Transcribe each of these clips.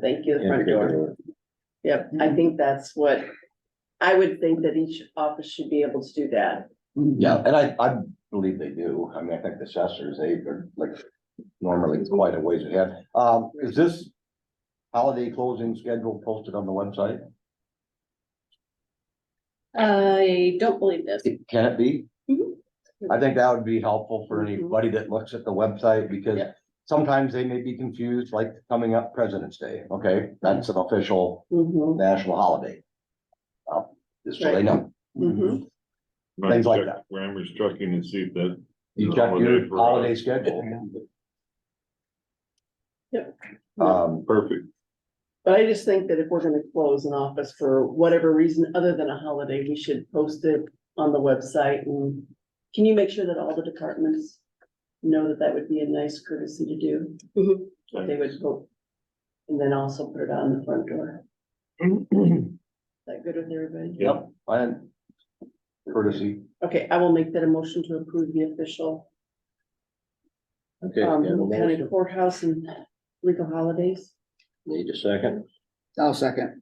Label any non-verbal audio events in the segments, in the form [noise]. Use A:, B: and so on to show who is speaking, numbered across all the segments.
A: thank you, the front
B: Yeah,
A: door. Yep, I
C: Mm-hmm.
A: think that's what, I would think that each office should be able to do that.
B: Yeah, and I, I believe they do. I mean, I think the assessors, they are like normally quite a ways ahead. Um, is this holiday closing schedule posted on the website?
C: I don't believe this.
B: Can it be?
C: Mhm.
A: Mm-hmm.
B: I think that would be helpful for anybody that looks at the website because
C: Yeah.
B: sometimes they may be confused, like coming up President's Day, okay? That's an official
A: Mm-hmm.
B: national holiday. Uh, Just so they know.
A: Mhm.
D: Might
B: Things like
D: check
B: that.
D: Grammar's trucking and see if that.
B: You
D: is a
B: check your
D: for us.
B: holiday schedule.
A: Yep.
B: Um,
E: [clears throat]
D: Perfect.
A: But I just think that if we're gonna close an office for whatever reason other than a holiday, we should post it on the website and. Can you make sure that all the departments know that that would be a nice courtesy to do?
C: Mm-hmm.
A: That They would vote. And then also put it on the front door. Is that good with everybody?
B: Yep, and courtesy.
A: Okay, I will make that a motion to approve the official,
E: Okay,
A: um,
E: we have a
A: county
E: motion.
A: courthouse and legal holidays.
E: need a second,
F: I'll second.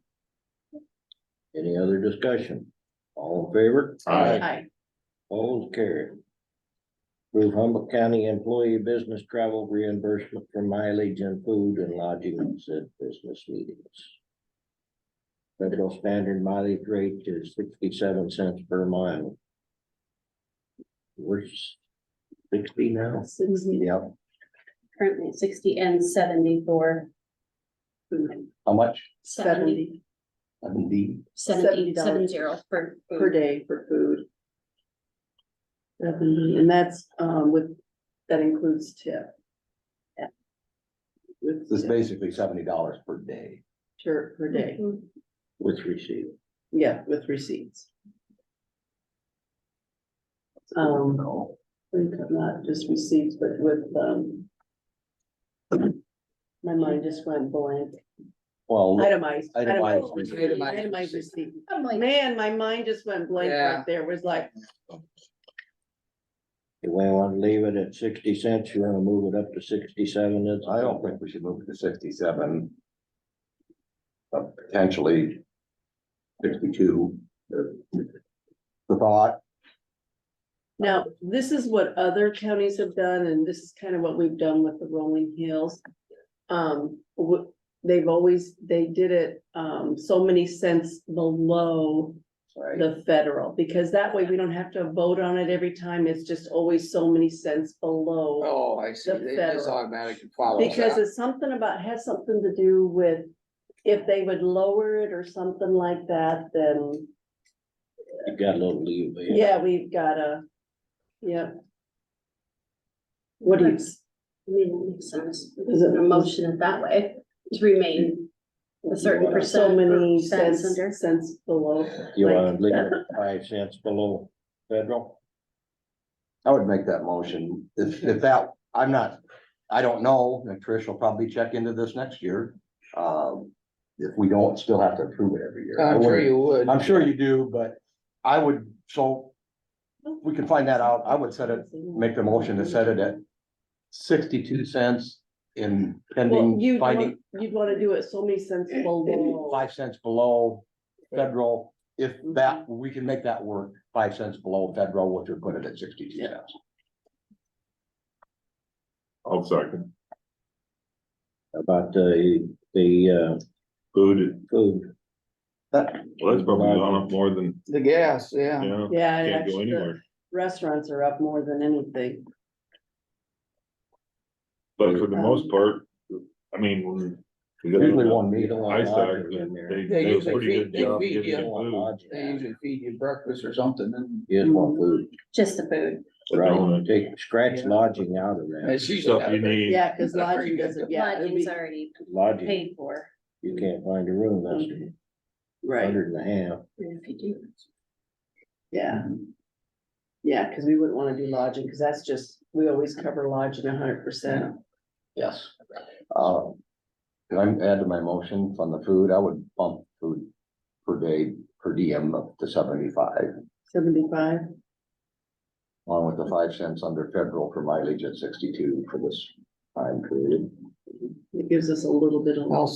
E: any other discussion? All in favor?
D: Aye.
A: Aye.
E: All carried. Approve Humboldt County employee business travel reimbursement for mileage and food and lodging at business meetings. Federal standard mileage rate is sixty-seven cents per mile. We're s- sixty now?
C: Sixty,
E: Yep.
C: currently sixty and seventy-four.
B: How much?
A: Seventy
B: Seventy.
A: $70.
C: Seventy, seven zero for.
A: per day for food. Seventy, and that's, um, with, that includes tip. Yeah. With
B: This is
A: tip
B: basically seventy dollars per day.
A: per- per day,
C: Mhm.
E: With receipt.
A: yeah, with receipts. Um, not just receipts, but with, um. My mind just went blank.
B: Well,
A: Itemized.
B: Itemized.
F: Itemized.
A: Itemized receipt.
C: I'm like,
A: Man, my mind just went blank
F: Yeah.
A: right there, was like,
E: Do we want to leave it at sixty cents? You want to move it up to sixty-seven? It's-
B: I don't think we should move it to sixty-seven. But potentially sixty-two. The thought,
A: now, this is what other counties have done, and this is kind of what we've done with the rolling hills. Um, wh- they've always, they did it, um, so many cents below the federal, because that way we don't have to vote on it every time, it's just always so many cents below.
F: Oh, I see.
A: The
F: They just
A: federal.
F: automatically follow
A: Because
F: that.
A: it's something about, has something to do with if they would lower it or something like that, then
E: You got a little leeway.
A: Yeah, we've got a, yeah. What do you,
C: I mean, that makes sense.
A: Is it-
C: A motion it that way to remain a certain percent.
A: so many
C: or
A: cents,
C: under.
A: cents below,
E: You want to leave it at five cents below federal?
B: I would make that motion. If, if that, I'm not, I don't know, and Trish will probably check into this next year. Um, if we don't still have to approve it every year. I
F: I'm sure
B: wouldn't-
F: you would.
B: I'm sure you do, but I would, so we can find that out. I would set it, make the motion to set it at sixty-two cents in
A: well,
B: pending
A: you'd
B: finding
A: want, you'd wanna do it so many cents below.
B: five cents below federal. If that, we can make that work, five cents below federal, which would put it at sixty-two cents.
D: I'll second.
E: About the, the, uh,
D: Food,
E: food.
D: well, that's probably gone up more than,
F: The gas, yeah.
D: yeah,
A: Yeah, and
D: can't go
A: actually, the
D: anywhere.
A: restaurants are up more than anything,
D: But for the most part, I mean, when. we got-
B: Usually one
E: You
B: meal.
E: don't
D: I
E: want
D: started,
E: lodging in
D: they,
E: there.
D: they do a
F: usually
D: pretty good
F: feed- they
D: job
F: feed
D: giving
F: you.
E: You
D: you
E: don't want
D: food.
E: lodging
F: They
E: in there.
F: usually feed you breakfast or something and
E: You just want food,
C: Just the food.
E: right? Take, scratch
F: Yeah.
E: lodging out of that.
F: it's usually.
D: uh, Stuff you need.
A: yeah, cause
F: That's pretty
A: lodging
F: good.
A: doesn't, yeah, it'd
C: Lodging's
A: be,
C: already
E: Lodging,
C: paid for.
E: you can't find a room, that's a
A: right,
E: hundred and a half.
C: And If you do.
A: yeah. Yeah, cause we wouldn't wanna do lodging, cause that's just, we always cover lodging a hundred percent.
B: Yes. Uh, Can I add to my motion on the food? I would bump food per day, per diem up to seventy-five,
A: Seventy-five,
B: along with the five cents under federal for mileage at sixty-two for this time period.
A: it gives us a little bit of.
F: I'll